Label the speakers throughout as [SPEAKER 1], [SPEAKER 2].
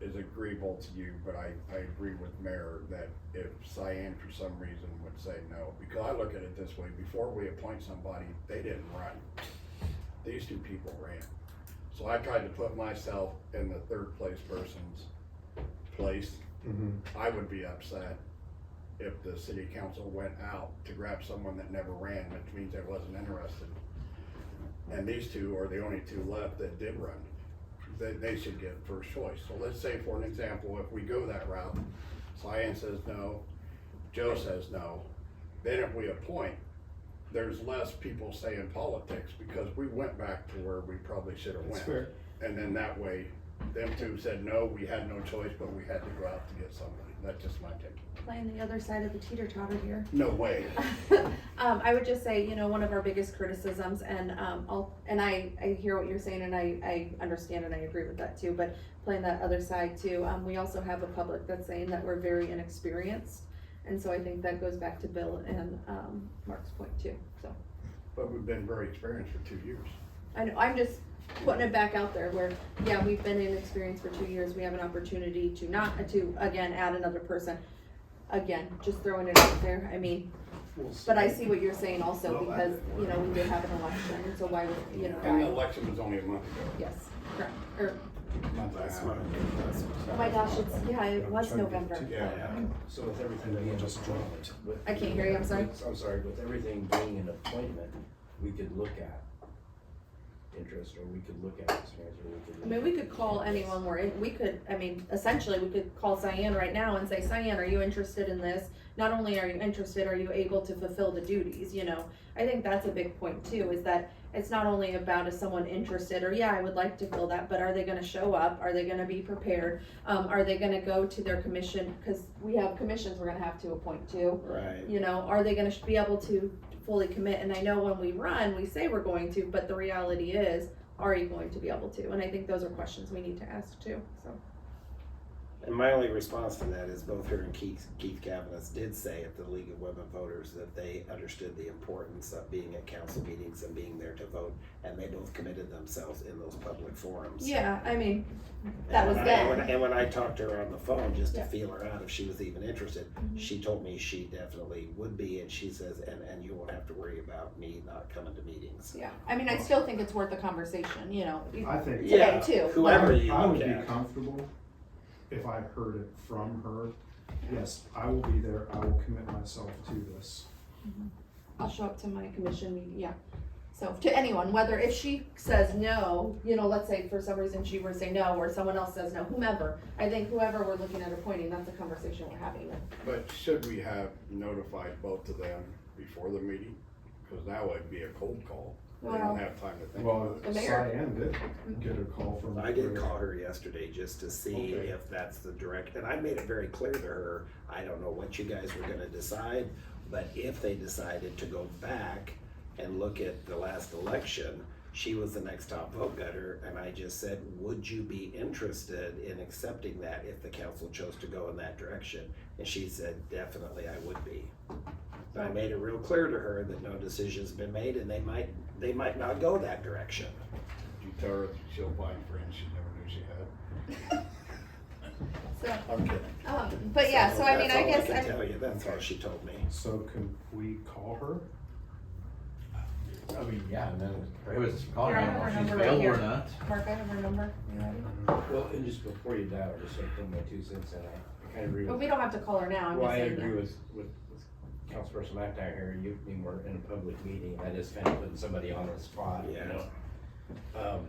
[SPEAKER 1] is agreeable to you, but I, I agree with Mayor that if Cyan for some reason would say no, because I look at it this way, before we appoint somebody, they didn't run. These two people ran. So I tried to put myself in the third place person's place.
[SPEAKER 2] Mm-hmm.
[SPEAKER 1] I would be upset if the city council went out to grab someone that never ran, which means I wasn't interested. And these two are the only two left that did run. They, they should get first choice. So let's say for an example, if we go that route, Cyan says no, Joe says no, then if we appoint, there's less people saying politics because we went back to where we probably should have went.
[SPEAKER 3] That's fair.
[SPEAKER 1] And then that way, them two said, no, we had no choice, but we had to go out to get somebody. That's just my take.
[SPEAKER 4] playing the other side of the teeter totter here.
[SPEAKER 1] No way.
[SPEAKER 4] um, I would just say, you know, one of our biggest criticisms, and um, I'll, and I, I hear what you're saying, and I, I understand and I agree with that too. But playing that other side too, um, we also have a public that's saying that we're very inexperienced, and so I think that goes back to Bill and um, Mark's point too. So
[SPEAKER 1] But we've been very experienced for two years.
[SPEAKER 4] I know I'm just putting it back out there where, yeah, we've been inexperienced for two years. We have an opportunity to not to again add another person. Again, just throwing it out there. I mean.
[SPEAKER 3] We'll see.
[SPEAKER 4] But I see what you're saying
[SPEAKER 3] Well,
[SPEAKER 4] also,
[SPEAKER 3] I-
[SPEAKER 4] because, you know, we did have an election, so why, would- you know,
[SPEAKER 1] And the
[SPEAKER 4] why?
[SPEAKER 1] election was only a month ago.
[SPEAKER 4] Yes, correct, or,
[SPEAKER 1] Month and a
[SPEAKER 3] That's
[SPEAKER 1] half.
[SPEAKER 3] what I mean, that's-
[SPEAKER 4] oh my gosh, it's, yeah, it was
[SPEAKER 3] Trying to get
[SPEAKER 4] November.
[SPEAKER 3] to-
[SPEAKER 1] Yeah.
[SPEAKER 5] So with everything
[SPEAKER 3] And then
[SPEAKER 5] being.
[SPEAKER 3] we'll just drop it.
[SPEAKER 5] with-
[SPEAKER 4] I can't hear you, I'm sorry.
[SPEAKER 5] I'm sorry, with everything being an appointment, we could look at interest, or we could look at experience, or we could.
[SPEAKER 4] I mean,
[SPEAKER 5] look
[SPEAKER 4] we
[SPEAKER 5] at
[SPEAKER 4] could call
[SPEAKER 5] candidates.
[SPEAKER 4] anyone we're in, we could, I mean, essentially, we could call Cyan right now and say, Cyan, are you interested in this? Not only are you interested, are you able to fulfill the duties, you know? I think that's a big point too, is that it's not only about is someone interested, or yeah, I would like to fill that, but are they gonna show up? Are they gonna be prepared? Um, are they gonna go to their commission, cause we have commissions we're gonna have to appoint to.
[SPEAKER 3] Right.
[SPEAKER 4] you know, are they gonna sh- be able to fully commit? And I know when we run, we say we're going to, but the reality is, are you going to be able to? And I think those are questions we need to ask too, so.
[SPEAKER 3] And my only response to that is both her and Keith, Keith Cavanis did say at the League of Women Voters that they understood the importance of being at council meetings and being there to vote, and they both committed themselves in those public forums.
[SPEAKER 4] Yeah, I mean, that was
[SPEAKER 3] And when I-
[SPEAKER 4] then.
[SPEAKER 3] when- And when I talked to her on the phone, just to
[SPEAKER 4] Yeah. Mm-hmm.
[SPEAKER 3] feel her out if she was even interested, she told me she definitely would be, and she says, and, and you won't have to worry about me not coming to meetings.
[SPEAKER 4] yeah, I mean, I still think it's worth a conversation, you know,
[SPEAKER 2] I think.
[SPEAKER 3] Yeah,
[SPEAKER 4] too, but-
[SPEAKER 3] Whoever you
[SPEAKER 2] I would
[SPEAKER 3] look
[SPEAKER 2] be
[SPEAKER 3] at.
[SPEAKER 2] comfortable if I heard it from her, yes, I will be there, I will commit myself to this.
[SPEAKER 4] I'll show up to my commission meeting, yeah. So to anyone, whether if she says no, you know, let's say for some reason she were to say no, or someone else says no, whomever, I think whoever we're looking at appointing, that's a conversation we're having.
[SPEAKER 1] But should we have notified both of them before the meeting? Because now it'd be a cold call. We
[SPEAKER 4] Well-
[SPEAKER 1] don't have time to think
[SPEAKER 2] Well,
[SPEAKER 1] about it.
[SPEAKER 4] The mayor. Mm-hmm.
[SPEAKER 2] Cyan did get a call from.
[SPEAKER 3] I did call her yesterday just to see
[SPEAKER 1] Okay.
[SPEAKER 3] if that's the direct, and I made it very clear to her, I don't know what you guys were gonna decide, but if they decided to go back and look at the last election, she was the next top vote getter, and I just said, would you be interested in accepting that if the council chose to go in that direction? And she said, definitely I would be. But I made it real clear to her that no decision's been made and they might, they might not go that direction.
[SPEAKER 1] You tell her she'll find friends she never knew she had.
[SPEAKER 4] So,
[SPEAKER 1] I'm kidding.
[SPEAKER 4] um, but yeah, so I mean,
[SPEAKER 3] that's
[SPEAKER 4] I
[SPEAKER 3] all
[SPEAKER 4] guess,
[SPEAKER 3] I can
[SPEAKER 4] I,
[SPEAKER 3] tell you, that's all she told me.
[SPEAKER 2] So can we call her?
[SPEAKER 6] I mean, yeah, and then prohibits us from calling
[SPEAKER 4] Here, I have
[SPEAKER 6] her if
[SPEAKER 4] her
[SPEAKER 6] she's
[SPEAKER 4] number right
[SPEAKER 6] available or
[SPEAKER 4] here.
[SPEAKER 6] not.
[SPEAKER 4] Mark, I have her number. You ready?
[SPEAKER 5] Well, and just before you dial, just so I put my two cents in, I kind of agree
[SPEAKER 4] But
[SPEAKER 5] with,
[SPEAKER 4] we don't have to call her now, I'm
[SPEAKER 5] well,
[SPEAKER 4] just
[SPEAKER 5] I
[SPEAKER 4] saying.
[SPEAKER 5] agree
[SPEAKER 4] yeah.
[SPEAKER 5] with, with with Councilperson McIntyre here, you, you were in a public meeting, I just kind of putting somebody on the spot, you
[SPEAKER 3] Yeah.
[SPEAKER 5] know? Um,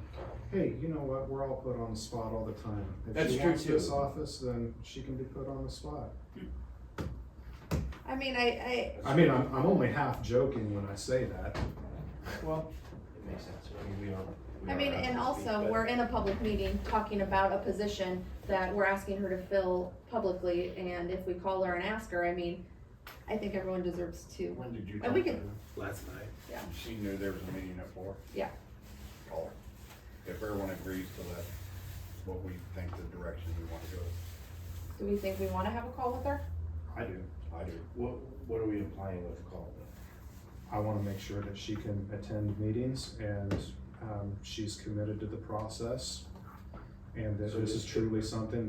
[SPEAKER 2] Hey, you know what, we're all put on the spot all the time.
[SPEAKER 5] That's
[SPEAKER 2] If she
[SPEAKER 5] true
[SPEAKER 2] wants this
[SPEAKER 5] too.
[SPEAKER 2] office, then she can be put on the spot.
[SPEAKER 4] I mean, I, I,
[SPEAKER 2] I mean, I'm, I'm only half joking when I say that.
[SPEAKER 5] Well, it makes sense, I mean, we are. we
[SPEAKER 4] I
[SPEAKER 5] are
[SPEAKER 4] mean,
[SPEAKER 5] up to
[SPEAKER 4] and
[SPEAKER 5] speed,
[SPEAKER 4] also,
[SPEAKER 5] but-
[SPEAKER 4] we're in a public meeting talking about a position that we're asking her to fill publicly, and if we call her and ask her, I mean, I think everyone deserves to.
[SPEAKER 1] When did you
[SPEAKER 4] And
[SPEAKER 1] talk
[SPEAKER 4] we
[SPEAKER 1] to her?
[SPEAKER 4] can-
[SPEAKER 3] Last night.
[SPEAKER 1] She knew there was a meeting at four?
[SPEAKER 4] Yeah.
[SPEAKER 1] Call her. If everyone agrees to that, what we think the direction we want to go,
[SPEAKER 4] Do we think we wanna have a call with her?
[SPEAKER 1] I do, I do.
[SPEAKER 5] What, what are we implying with call
[SPEAKER 2] I wanna make sure that she can attend meetings and, um, she's committed to the process. And that this is truly something